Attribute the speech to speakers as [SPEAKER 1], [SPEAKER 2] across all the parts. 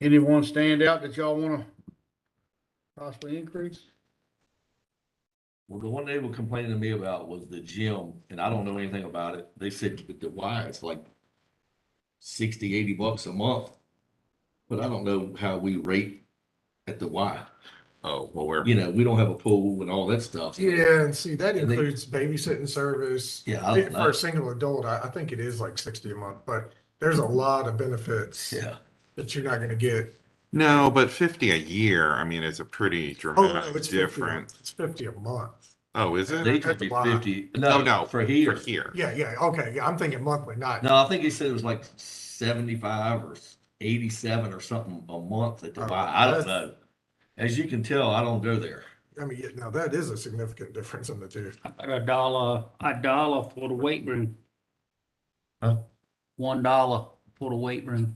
[SPEAKER 1] Anyone stand out that y'all wanna possibly increase?
[SPEAKER 2] Well, the one they were complaining to me about was the gym, and I don't know anything about it. They said that the wire is like 60, 80 bucks a month. But I don't know how we rate at the Y.
[SPEAKER 3] Oh, well, we're,
[SPEAKER 2] You know, we don't have a pool and all that stuff.
[SPEAKER 4] Yeah, and see, that
[SPEAKER 2] And they- Oh,
[SPEAKER 4] includes babysitting service.
[SPEAKER 2] Yeah, I don't
[SPEAKER 4] For
[SPEAKER 2] know.
[SPEAKER 4] a single adult, I, I think it is like sixty a month, but there's a lot of benefits
[SPEAKER 2] Mm-hmm. Yeah,
[SPEAKER 4] that you're not gonna get.
[SPEAKER 3] no, but fifty a year, I mean, is a pretty
[SPEAKER 4] Oh, no,
[SPEAKER 3] dramatic
[SPEAKER 4] it's fifty, a
[SPEAKER 3] difference.
[SPEAKER 4] month. it's fifty a month.
[SPEAKER 3] Oh, is
[SPEAKER 2] they
[SPEAKER 3] it?
[SPEAKER 2] could be
[SPEAKER 4] That's a Y.
[SPEAKER 2] 50.
[SPEAKER 3] Oh, no,
[SPEAKER 2] No, for
[SPEAKER 3] For
[SPEAKER 2] here.
[SPEAKER 3] here.
[SPEAKER 4] Yeah, yeah, okay, yeah, I'm thinking monthly, not,
[SPEAKER 2] No, I think he said it was like 75 or 87 or something a month at the
[SPEAKER 4] Oh,
[SPEAKER 2] Y. I don't
[SPEAKER 4] that's-
[SPEAKER 2] know. As you can tell, I don't go there.
[SPEAKER 4] I mean, yeah, now that is a significant difference in the two.
[SPEAKER 5] About a dollar, a dollar for the weight room.
[SPEAKER 2] Huh?
[SPEAKER 5] One dollar for the weight room,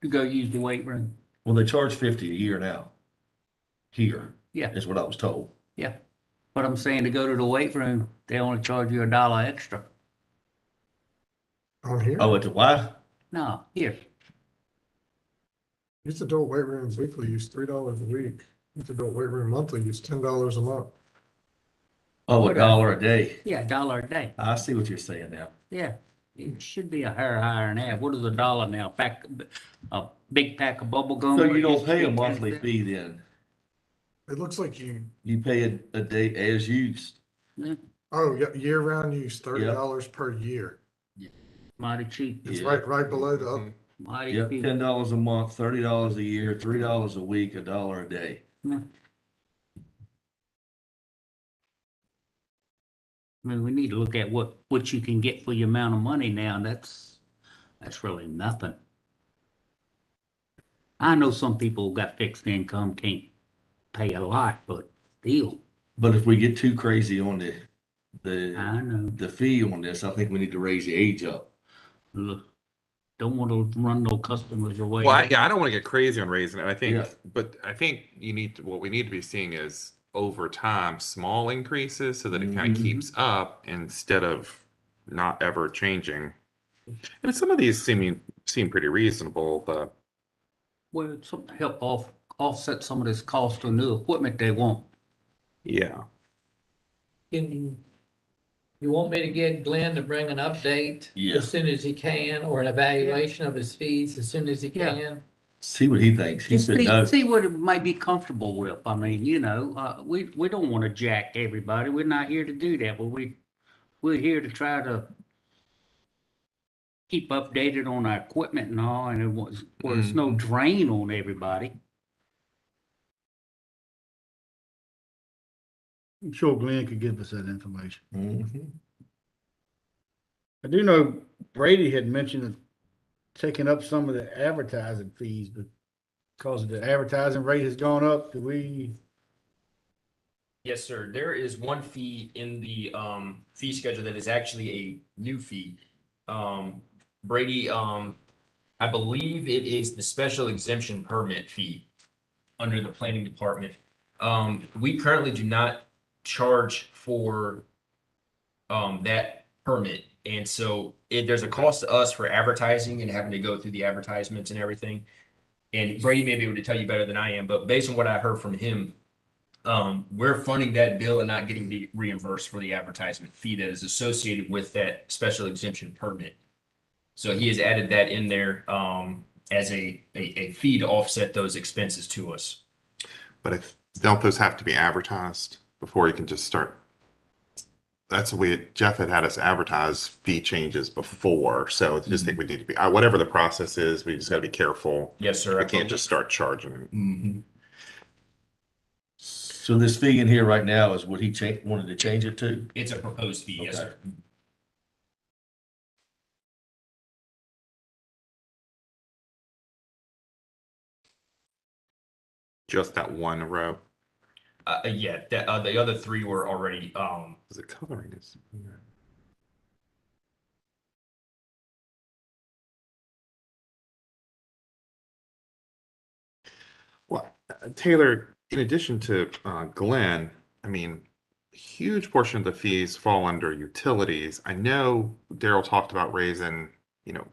[SPEAKER 5] to go use the weight room.
[SPEAKER 2] Well, they charge 50 a year now. Here.
[SPEAKER 5] Yeah.
[SPEAKER 2] Is what I was told.
[SPEAKER 5] But I'm saying to go to the weight room, they only charge you a dollar extra.
[SPEAKER 4] On here,
[SPEAKER 2] Oh, at the Y?
[SPEAKER 5] No, here,
[SPEAKER 4] it's adult weight rooms weekly use three dollars a week. It's adult weight room monthly use ten dollars a month.
[SPEAKER 2] Oh, a
[SPEAKER 5] Okay.
[SPEAKER 2] dollar a day.
[SPEAKER 5] yeah, a dollar a day,
[SPEAKER 2] I see what you're saying now.
[SPEAKER 5] yeah. It should be a hair higher than that. What is a dollar now? Pack, a big pack of bubble gum.
[SPEAKER 2] So
[SPEAKER 5] or
[SPEAKER 2] you don't
[SPEAKER 5] just
[SPEAKER 2] pay a
[SPEAKER 5] big
[SPEAKER 2] monthly
[SPEAKER 5] pack?
[SPEAKER 2] fee then?
[SPEAKER 4] It looks like you,
[SPEAKER 2] You pay a, a day as used?
[SPEAKER 5] Yeah,
[SPEAKER 4] oh, yeah, year-round use thirty dollars per year.
[SPEAKER 5] Mighty cheap,
[SPEAKER 4] It's
[SPEAKER 2] Yeah.
[SPEAKER 4] right, right below the, up-
[SPEAKER 5] mighty
[SPEAKER 2] Yep,
[SPEAKER 5] cheap.
[SPEAKER 2] ten dollars a month, thirty dollars a year, three dollars a week, a dollar a day.
[SPEAKER 5] I mean, we need to look at what, what you can get for your amount of money now, and that's, that's really nothing. I know some people who got fixed income, can't pay a lot, but still,
[SPEAKER 2] But if we get too crazy on the, the,
[SPEAKER 5] I know,
[SPEAKER 2] the fee on this, I think we need to raise the age up.
[SPEAKER 5] look, don't want to run no customers away.
[SPEAKER 3] Well, I- yeah, I don't want to get crazy on raising it. I think,
[SPEAKER 2] Yeah.
[SPEAKER 3] but I think you need, to- what we need to be seeing is over time, small increases so that it
[SPEAKER 4] Mm-hmm.
[SPEAKER 3] kind
[SPEAKER 2] Mhm.
[SPEAKER 3] of keeps up instead of not ever changing. And some of these seem, seem pretty reasonable, but
[SPEAKER 5] Well, something to help off, offset some of this cost of new equipment they want.
[SPEAKER 3] yeah.
[SPEAKER 6] Can, you want me to get Glenn to bring an update?
[SPEAKER 2] Yeah.
[SPEAKER 6] As soon as he can, or an evaluation of his fees as soon as he
[SPEAKER 5] Yeah.
[SPEAKER 6] can?
[SPEAKER 2] See what he thinks. He
[SPEAKER 5] Just
[SPEAKER 2] said
[SPEAKER 5] see,
[SPEAKER 2] no.
[SPEAKER 5] see what it might be comfortable with. I mean, you know, uh, we, we don't want to jack everybody. We're not here to do that, but we, we're here to try to keep updated on our equipment and all, and it was, well, it's no drain on everybody.
[SPEAKER 1] I'm sure Glenn could give us that information.
[SPEAKER 2] Mhm.
[SPEAKER 1] I do know Brady had mentioned taking up some of the advertising fees, but because the advertising rate has gone up, do we,
[SPEAKER 7] Yes, sir. There is one fee in the um fee schedule that is actually a new fee. Um Brady, um I believe it is the special exemption permit fee under the planning department. Um we currently do not charge for um that permit. And so it there's a cost to us for advertising and having to go through the advertisements and everything. And Brady may be able to tell you better than I am, but based on what I heard from him, um, we're funding that bill and not getting the reimbursed for the advertisement fee that is associated with that special exemption permit. So he has added that in there, um, as a, a, a fee to offset those expenses to us.
[SPEAKER 3] But if, don't those have to be advertised before you can just start? That's the way Jeff had had us advertise fee changes before, so I just think we need to be, uh, whatever the process is, we just gotta be careful.
[SPEAKER 7] Yes, sir. Mm-hmm.
[SPEAKER 3] We can't just start charging.
[SPEAKER 2] Mhm. So this fee in here right now is what he cha- wanted to change it to?
[SPEAKER 7] It's a proposed fee, yes,
[SPEAKER 2] Okay.
[SPEAKER 7] sir.
[SPEAKER 3] Just that one row,
[SPEAKER 7] Uh, yeah, the, uh, the other three were already, um,
[SPEAKER 3] is it coloring is? Well, uh, Taylor, in addition to uh, Glenn, I mean, huge portion of the fees fall under utilities. I know Daryl talked about raising, you know,